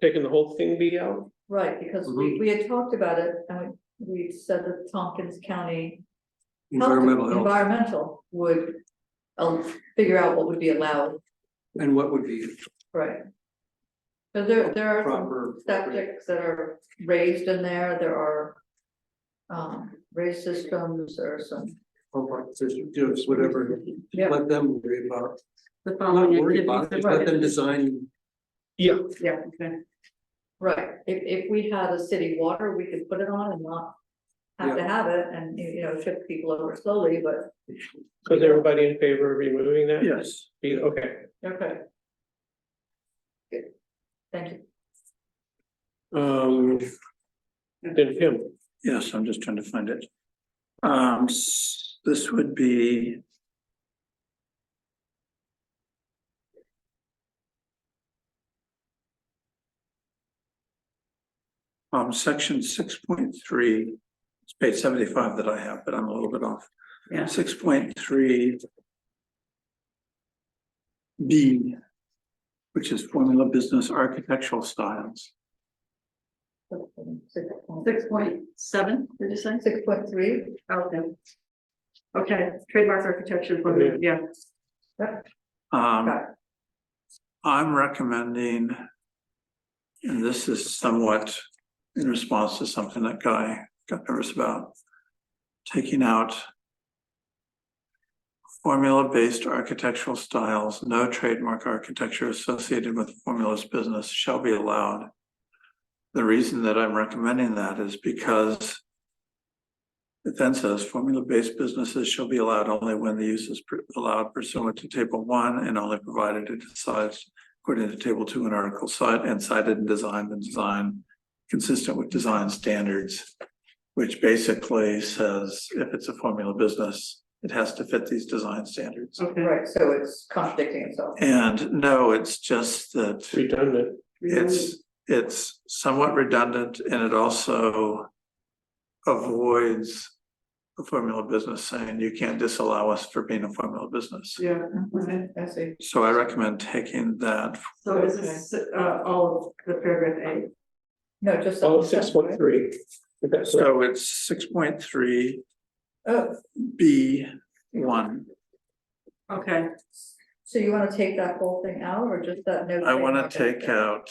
taking the whole thing be out? Right, because Mm-hmm. we, we had talked about it, and we, we said that Tompkins County. Health- environmental health, Environmental would, um, figure out what would be allowed, and what would be right? So there, there are some proper. septics that are raised in there, there are. Um, raised systems or some, Compact systems, whatever, yeah, let them worry about, The not following worry about, activities. it, just let them design. Yeah, Yeah, okay. right, if, if we had a city water, we could put it on and not. Have to have it and, you know, shift people over slowly, but. so is everybody in favor of removing that? Yes. Be- Okay, Okay. Good, thank you. um. Then Kim, Yes, I'm just trying to find it. Um, s- this would be. Um, section six point three, it's page seventy-five that I have, but I'm a little bit off. Yeah. Six point three. B. Which is formula business architectural styles. Six point seven, did you say? Six point three, Okay. Okay, trademark architecture, for- yeah, Um. Okay. I'm recommending. And this is somewhat in response to something that guy got nervous about. Taking out. Formula-based architectural styles, no trademark architecture associated with formulas business shall be allowed. The reason that I'm recommending that is because. It then says formula-based businesses shall be allowed only when the use is pr- allowed pursuant to table one and only provided it decides. According to table two and article cite and cited and designed and design consistent with design standards. Which basically says if it's a formula business, it has to fit these design standards. okay. right, so it's contradicting itself. And no, it's just that. redundant, It's, it's somewhat redundant and it also avoids a formula business saying you can't disallow us for being a formula business. Yeah, okay, I see. So I recommend taking that. so this is uh all of the paragraph eight. No, just. all Oh, six point three. That's right, So it's six point three Oh, B one. Okay, so you wanna take that whole thing out or just that note? I want to taken? take uh, out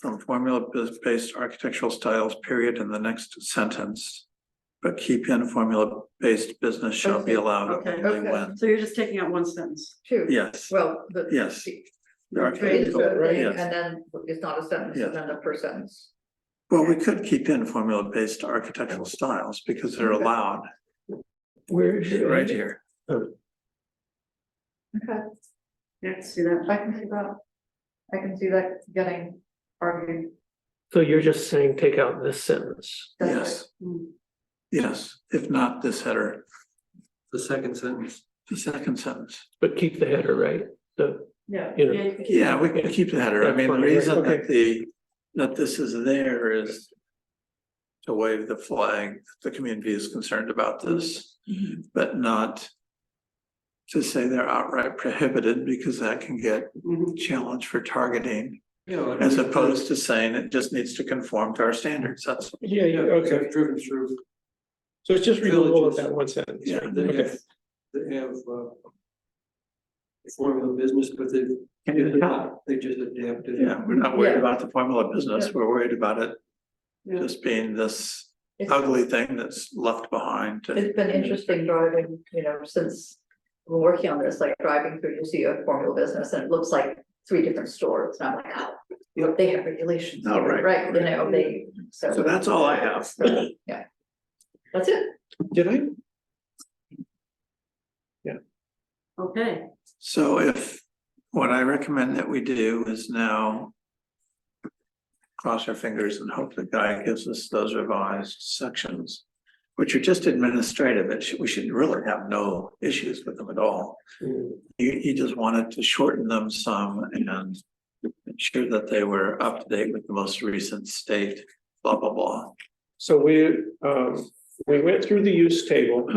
from formula bus- based architectural styles period in the next sentence. But keep in formula based business shall be Okay, allowed okay, only okay. when, so you're just taking out one sentence. Two. yes. Well, the. Yes. the- The Trade is architectural, one thing, yes. and then it's not a sentence, and then the per sentence. Well, we could keep in formula-based architectural styles because they're Okay. allowed where is it? right here. Okay, Yeah, see that? I can see that. I can see that getting argued. So you're just saying take out this sentence. That's Yes, Hmm. yes. If not this header, The second sentence, the second sentence. But keep the header, right? The, Yeah. You know, you can keep- Yeah, we can keep the header. I mean, the reason that the, that this is there is to wave the flag, that the community is concerned about this, Mm-hmm. but not to say they're outright prohibited because that can get Mhm. challenged for targeting. you know. As opposed to saying it just needs to conform to our standards, that's, Yeah, yeah, Yeah, okay, okay, driven through, so it's just removal of that one sentence. yeah, they Okay. have, they have, uh. Formula business, but they've, Can you tell? they just adapted. it. yeah, we're not worried Yeah. about the formula business, Yeah. we're worried about it Yeah. just being this It's- ugly thing that's left behind. and- It's been interesting driving, you know, since we're working on this, like driving through, you see a formula business and it looks like three different stores. And I'm like, oh, Yep. they have regulations. Oh, here, right, Right, you know, they, so. So that's all I have. Yeah. That's it. Did I? Okay, So if, what I recommend that we do is now cross our fingers and hope the guy gives us those revised sections, which are just administrative, it should, we should really have no issues with them at all. Mm. He, he just wanted to shorten them some and ensure that they were up to date with the most recent state, blah, blah, blah. So we, um, we went through the use table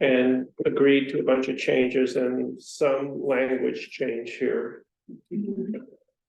and agreed to a bunch of changes and some language change here.